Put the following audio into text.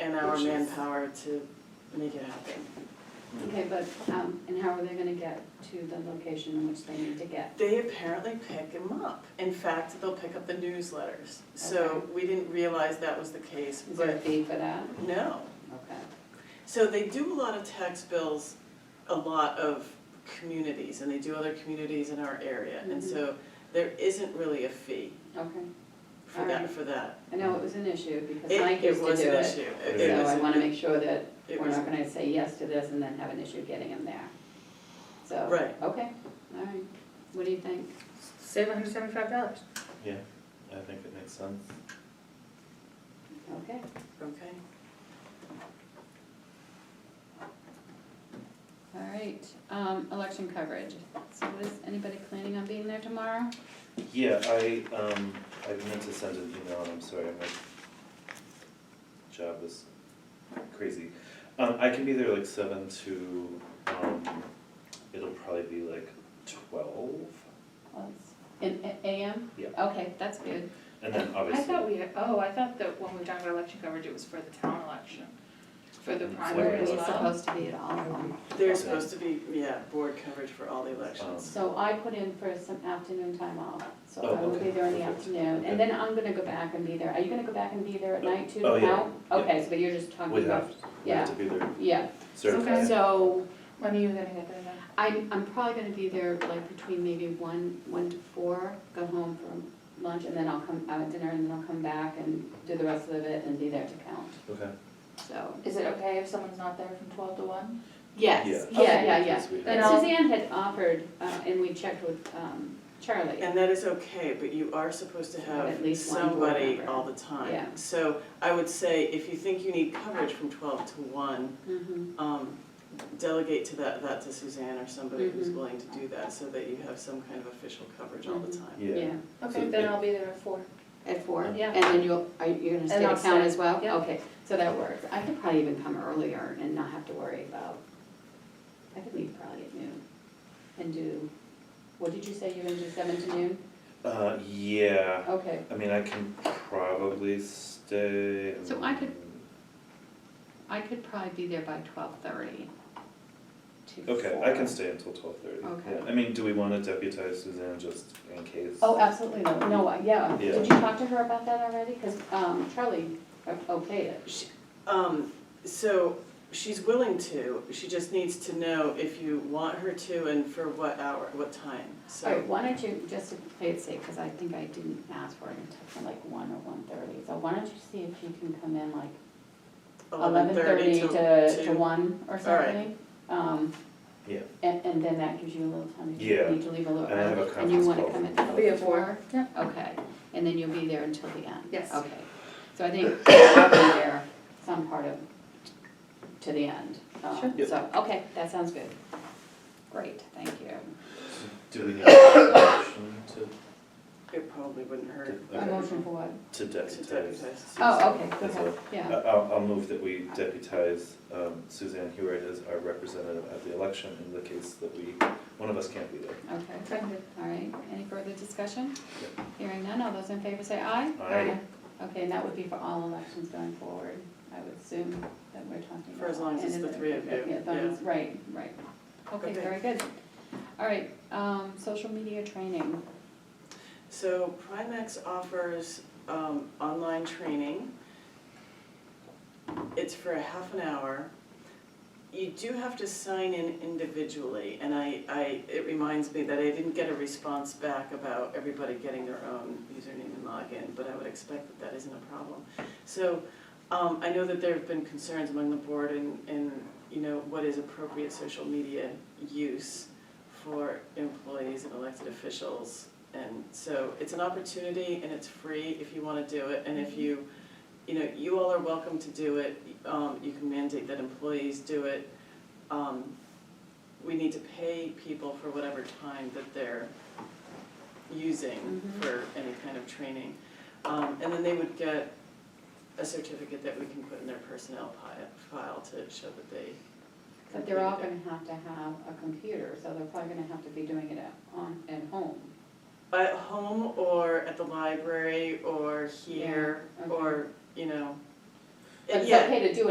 and our Which is- manpower to make it happen. Okay, but, um, and how are they gonna get to the location in which they need to get? They apparently pick them up. In fact, they'll pick up the newsletters. So we didn't realize that was the case, Is there a but fee for that? no. Okay. So they do a lot of tax bills, a lot of communities, and they do other communities in our area. And Mhm. so there isn't really a fee Okay, for that, Alright. for that. I know it was an issue because It- Mike used to do It was it. an issue. It- it So was- I wanna make sure that it we're was- not gonna say yes to this and then have an issue getting them there. So, okay, Right. all right. What do you think? Save hundred seventy-five dollars. Yeah, I think it makes sense. Okay, Okay. all right. Um, election coverage. So is anybody planning on being there tomorrow? Yeah, I, um, I meant to send an email, and I'm sorry, my job is crazy. Um, I can be there like seven to, um, it'll probably be like twelve, Well, it's- In a- AM? Yeah. Okay, that's good. and then I obviously. thought we, oh, I thought that when we were talking about election coverage, it was for the town election, for the Mm, Where primary are as it's we Well- well. supposed to be at all of them? They're Okay. supposed to be, yeah, board coverage for all the elections. So I put in for some afternoon time off, so Oh, I will okay. be there in the Perfect. afternoon, Okay. and then I'm gonna go back and be there, are you gonna go back and be there at night too? Oh, yeah. No? Yeah. Okay, so but you're just talking We about, have, we have Yeah. to be there yeah, certified. so When are you gonna get there then? I'm, I'm probably gonna be there like between maybe one, one to four, go home for lunch, and then I'll come, out at dinner, and then I'll come back and do the rest of it and be there to count, Okay. so. Is it okay if someone's not there from twelve to one? Yes, Yeah. yeah, Okay. yeah, yeah. Because we But And I'll- have- Suzanne had offered, uh, and we checked with, um, Charlie. And that is okay, but you are supposed to have At least one board somebody member. all the time. Yeah. So I would say, if you think you need coverage from twelve to one, Mhm. um, delegate to that, that to Suzanne or somebody who's Mhm. willing to do that, so that you have some kind of official coverage all Mm-hmm. the time. Yeah, Okay, then I'll be there at four. At four? Yeah. And then you'll, are you gonna stay And to I'll count stay. as well? Yeah. Okay, so that works. I could probably even come earlier and not have to worry about, I could leave probably at noon and do, what did you say, you're gonna do seven to noon? uh, yeah, Okay, I mean, I can probably stay. So I could- and- I could probably be there by twelve-thirty to four. Okay, I can stay until twelve thirty. Okay. I mean, do we wanna deputize Suzanne just in case? Oh, absolutely, no, no, I- yeah. Yeah. Did you talk to her about that already? Because, um, Charlie o- okayed it. Um, so she's willing to, she just needs to know if you want her to and for what hour, what time, All right, so. why don't you, just to play it safe, because I think I didn't ask for it until like one or one thirty, so why don't you see if you can come in like eleven thirty to, to two. one or All right. something? Um, Yeah. and, and then that gives you a little time, if you Yeah. need to leave a little And I have a early, and you conference wanna call come in. from- I'll be at four. Yeah. Okay, and then you'll be there until the end? Yes. Okay, so I think I'll be there some part of, to the end. Um, Sure. Yep. So, okay, that sounds good. Great, thank you. Do we need a motion to, It probably wouldn't hurt A okay, motion for what? to to deputize? deputize. Oh, okay, That's okay, yeah. I- I'll, I'll move that we deputize um, Suzanne Hewitt as our representative at the election in the case that we, one of us can't be there. Okay, Seconded. all right, any further discussion? Hearing none, all those in favor say aye? Aye. Okay, and that would be for all elections going forward, I would assume that we're talking about. For as long as it's And the then- three of you, Yeah, those- right, right, okay, Okay. very good. All right, um, social media training, So Primex offers um, online training. It's for a half an hour. You do have to sign in individually, and I, I, it reminds me that I didn't get a response back about everybody getting their own username and login, but I would expect that that isn't a problem. So, um, I know that there have been concerns among the board in, in, you know, what is appropriate social media use for employees and elected officials. And so it's an opportunity and it's free if you wanna do it, and if you, you know, you all are welcome to do it, um, you can mandate that employees do it. Um, we need to pay people for whatever time that they're using Mhm. for any kind of training. Um, and then they would get a certificate that we can put in their personnel pi- file to show that they. but they're all completed gonna have to have a computer, so they're probably gonna have to be doing it at, on, at home. it. At home or at the library or here Yeah, okay. or, you know, But it's yeah. okay to do it